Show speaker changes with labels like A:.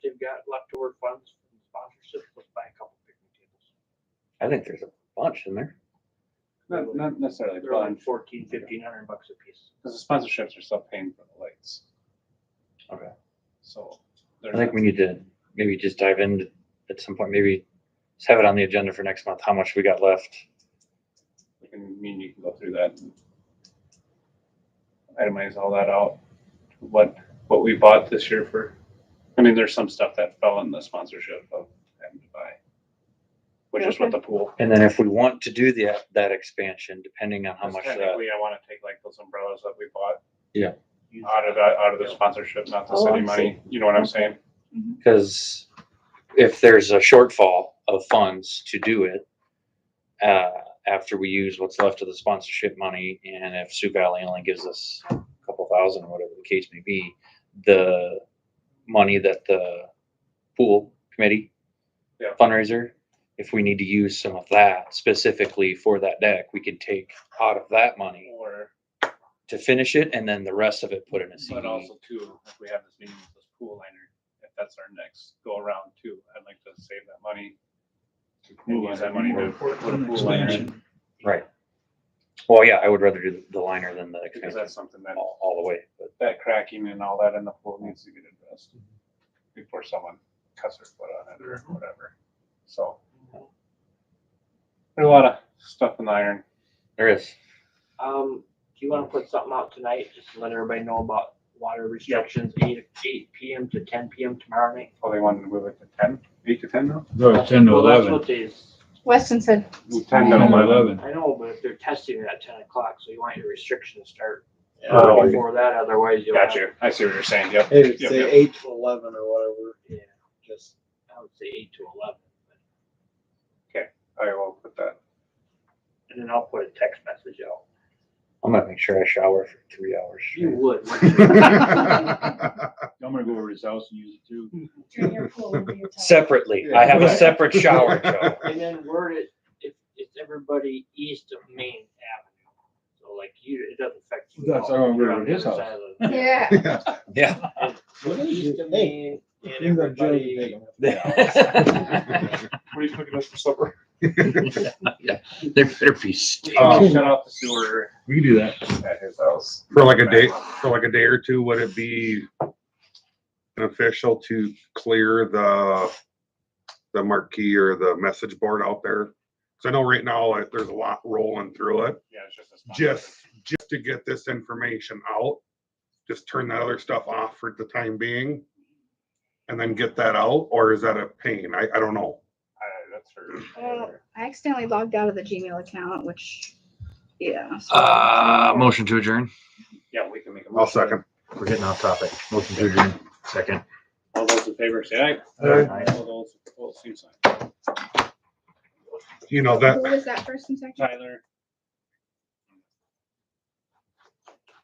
A: I think there's a bunch in there.
B: Not, not necessarily a
C: They're like
B: bunch,
C: fourteen, fifteen hundred bucks a piece.
B: because the sponsorships are still paying for the lights.
A: Okay.
B: So.
A: I think we need to maybe just dive in at some point, maybe just have it on the agenda for next month, how much we got left.
B: I mean, you can go through that. and Itemize all that out, what, what we bought this year for, I mean, there's some stuff that fell in the sponsorship of having to buy. Which is what the pool.
A: And then if we want to do the, that expansion, depending on how much uh, that,
B: Technically, I wanna take like those umbrellas that we bought
C: Use
B: out of, that- out of the sponsorship, not the
D: Oh, I
B: city
D: see.
B: money, you know what I'm saying?
A: because if there's a shortfall of funds to do it, uh, after we use what's left of the sponsorship money, and if Sioux Valley only gives us a couple thousand, whatever the case may be, the money that the pool committee
B: Yeah.
A: fundraiser, if we need to use some of that specifically for that deck, we can take out of that money
B: Or,
A: to finish it, and then the rest of it put in a CD.
B: but also too, if we have this meeting with this pool liner, if that's our next go around too, I'd like to save that money. And use that money to put a pool liner in.
A: Right. Well, yeah, I would rather do the liner than the
B: Because
A: expansion
B: that's something that,
A: all, all the way, but
B: that cracking and all that in the pool needs to get addressed before someone cuts their foot on it or whatever, so. There's a lot of stuff in the iron.
A: there is.
C: Um, do you wanna put something out tonight, just to let everybody know about water restrictions, eight, eight PM to ten PM tomorrow night?
B: Oh, they wanted to move it to ten, eight to ten now?
E: No, Oh, it's ten to
C: Well, that's
E: eleven.
C: what days,
D: Weston said,
B: Move Ten to
E: Ten to
B: eleven.
E: eleven.
C: I know, but if they're testing it at ten o'clock, so you want your restriction to start
B: Oh,
C: before that, otherwise you'll.
B: Got you. I see what you're saying, yep.
F: Hey,
B: Yep,
F: say
B: yep.
F: eight to eleven or whatever,
C: Yeah,
F: just,
C: I would say eight to eleven,
B: I will put that.
C: and then I'll put a text message out.
A: I'm gonna make sure I shower for three hours.
C: You
A: straight.
C: would, wouldn't you?
E: I'm gonna go over to his house and use it too.
G: Turn your pool into your tub.
A: Separately, I have a separate shower, Joe.
C: And then word it, if it's everybody east of Main Avenue, so like you, it doesn't affect you. at
E: That's
C: all.
E: how I'm
C: You're
E: gonna
C: on
E: do his
C: the other
E: house.
C: side of the-
D: yeah.
A: Yeah.
F: What
C: From
F: is
C: east
F: it?
C: of
F: Hey,
C: Main and
F: you're gonna
C: everybody-
F: jelly pig 'em.
B: What are you cooking us for supper?
A: There better be steak.
B: Uh, shut off the sewer
E: We can do that.
B: at his house.
H: For like a day, for like a day or two, would it be beneficial to clear the, the marquee or the message board out there? Cause I know right now, like, there's a lot rolling through it,
B: Yeah, it's just a. spot.
H: just, just to get this information out. Just turn that other stuff off for the time being. And then get that out, or is that a pain? I, I don't know.
B: Uh, That's
D: Well,
B: her.
D: I accidentally logged out of the Gmail account, which, yeah. so-
A: Uh, motion to adjourn.
B: Yeah, we can make a.
H: I'll second.
A: We're getting off topic. Motion to adjourn, second.
B: All those in favor say aye.
E: Aye.
B: All those opposed, same sign.
H: You know, that,
D: Who was that first and second?
B: Tyler,